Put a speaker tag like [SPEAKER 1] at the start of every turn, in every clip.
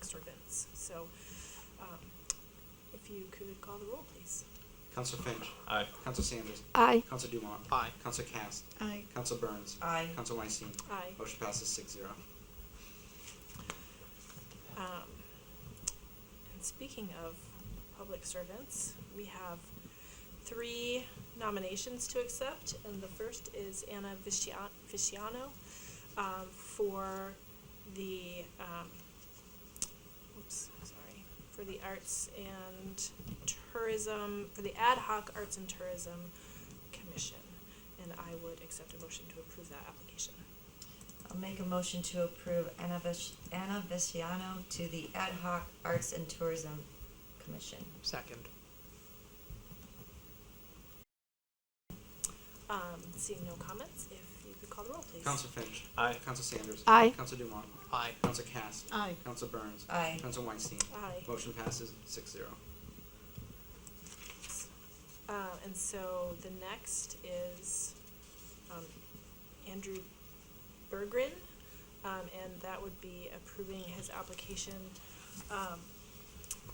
[SPEAKER 1] disturbance. So, um, if you could call the roll, please.
[SPEAKER 2] Council Finch.
[SPEAKER 3] Aye.
[SPEAKER 2] Council Sanders.
[SPEAKER 4] Aye.
[SPEAKER 2] Council Dumont.
[SPEAKER 3] Aye.
[SPEAKER 2] Council Cast.
[SPEAKER 5] Aye.
[SPEAKER 2] Council Burns.
[SPEAKER 5] Aye.
[SPEAKER 2] Council Weinstein.
[SPEAKER 1] Aye.
[SPEAKER 2] Motion passes six zero.
[SPEAKER 1] Um, and speaking of public servants, we have three nominations to accept, and the first is Anna Viscia- Visciano, um, for the, um, oops, sorry, for the Arts and Tourism, for the Ad hoc Arts and Tourism Commission, and I would accept a motion to approve that application.
[SPEAKER 5] I'll make a motion to approve Anna Vish- Anna Visciano to the Ad hoc Arts and Tourism Commission.
[SPEAKER 3] Second.
[SPEAKER 1] Um, seeing no comments, if you could call the roll, please.
[SPEAKER 2] Council Finch.
[SPEAKER 3] Aye.
[SPEAKER 2] Council Sanders.
[SPEAKER 4] Aye.
[SPEAKER 2] Council Dumont.
[SPEAKER 3] Aye.
[SPEAKER 2] Council Cast.
[SPEAKER 6] Aye.
[SPEAKER 2] Council Burns.
[SPEAKER 5] Aye.
[SPEAKER 2] Council Weinstein.
[SPEAKER 1] Aye.
[SPEAKER 2] Motion passes six zero.
[SPEAKER 1] Uh, and so the next is, um, Andrew Bergren, um, and that would be approving his application, um,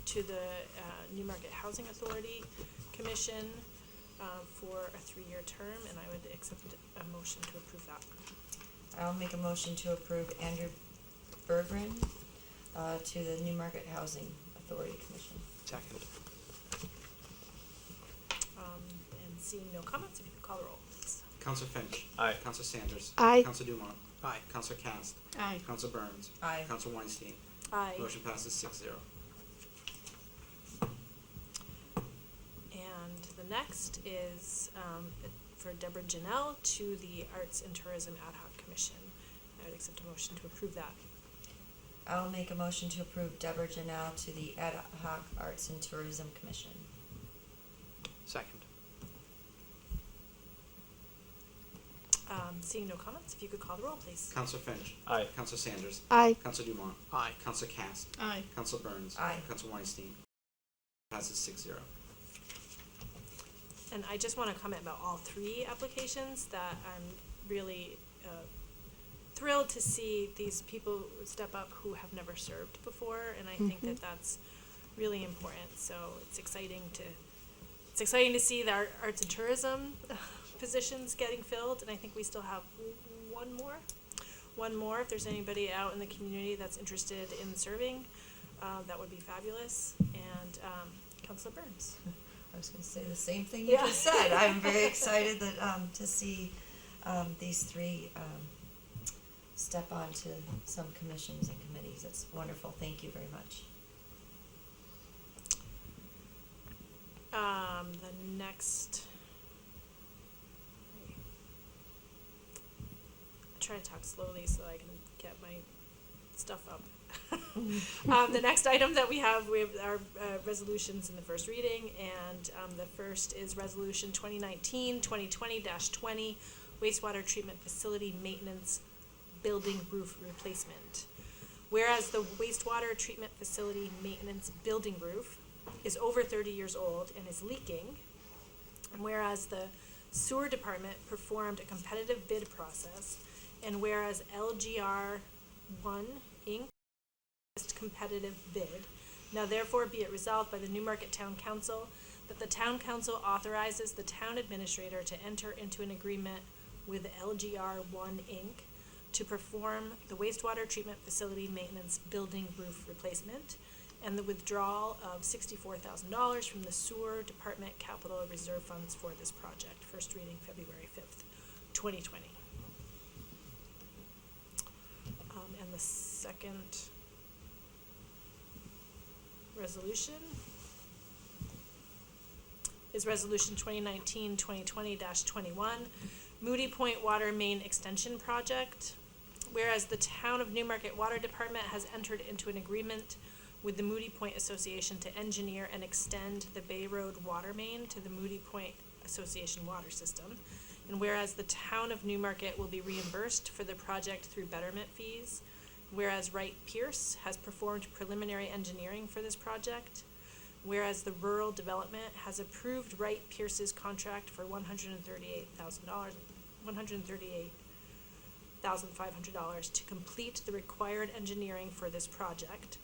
[SPEAKER 1] to the, uh, New Market Housing Authority Commission, uh, for a three-year term, and I would accept a motion to approve that.
[SPEAKER 5] I'll make a motion to approve Andrew Bergren uh, to the New Market Housing Authority Commission.
[SPEAKER 3] Second.
[SPEAKER 1] Um, and seeing no comments, if you could call the roll, please.
[SPEAKER 2] Council Finch.
[SPEAKER 3] Aye.
[SPEAKER 2] Council Sanders.
[SPEAKER 4] Aye.
[SPEAKER 2] Council Dumont.
[SPEAKER 3] Aye.
[SPEAKER 2] Council Cast.
[SPEAKER 6] Aye.
[SPEAKER 2] Council Burns.
[SPEAKER 5] Aye.
[SPEAKER 2] Council Weinstein.
[SPEAKER 1] Aye.
[SPEAKER 2] Motion passes six zero.
[SPEAKER 1] And the next is um, for Deborah Janelle to the Arts and Tourism Ad hoc Commission. I would accept a motion to approve that.
[SPEAKER 5] I'll make a motion to approve Deborah Janelle to the Ad hoc Arts and Tourism Commission.
[SPEAKER 3] Second.
[SPEAKER 1] Um, Seeing no comments, if you could call the roll, please.
[SPEAKER 2] Council Finch.
[SPEAKER 3] Aye.
[SPEAKER 2] Council Sanders.
[SPEAKER 4] Aye.
[SPEAKER 2] Council Dumont.
[SPEAKER 3] Aye.
[SPEAKER 2] Council Cast.
[SPEAKER 6] Aye.
[SPEAKER 2] Council Burns.
[SPEAKER 5] Aye.
[SPEAKER 2] Council Weinstein. Passes six zero.
[SPEAKER 1] And I just want to comment about all three applications that I'm really uh, thrilled to see these people step up who have never served before, and I think that that's really important. So it's exciting to it's exciting to see the art- arts and tourism positions getting filled, and I think we still have one more. One more, if there's anybody out in the community that's interested in serving, uh, that would be fabulous. And um, Councilor Burns.
[SPEAKER 5] I was gonna say the same thing you
[SPEAKER 1] Yeah.
[SPEAKER 5] just said. I'm very excited that, um, to see, um, these three, um, step on to some commissions and committees. It's wonderful. Thank you very much.
[SPEAKER 1] Um, the next. I try to talk slowly so I can get my stuff up. um, the next item that we have, we have our uh, resolutions in the first reading, and um, the first is Resolution 2019 2020 20, wastewater treatment facility maintenance building roof replacement. Whereas the wastewater treatment facility maintenance building roof is over thirty years old and is leaking. And whereas the sewer department performed a competitive bid process, and whereas LGR one Inc. lowest competitive bid, now therefore be it resolved by the Newmarket Town Council that the town council authorizes the town administrator to enter into an agreement with LGR one Inc. to perform the wastewater treatment facility maintenance building roof replacement and the withdrawal of sixty-four thousand dollars from the sewer department capital reserve funds for this project. First reading February fifth, twenty twenty. Um, and the second resolution is resolution 2019-2020 twenty-one, Moody Point Water Main Extension Project. Whereas the town of Newmarket Water Department has entered into an agreement with the Moody Point Association to engineer and extend the Bay Road water main to the Moody Point Association water system. And whereas the town of Newmarket will be reimbursed for the project through betterment fees. Whereas Wright Pierce has performed preliminary engineering for this project. Whereas the rural development has approved Wright Pierce's contract for one hundred and thirty-eight thousand dollars, one hundred and thirty-eight thousand five hundred dollars to complete the required engineering for this project.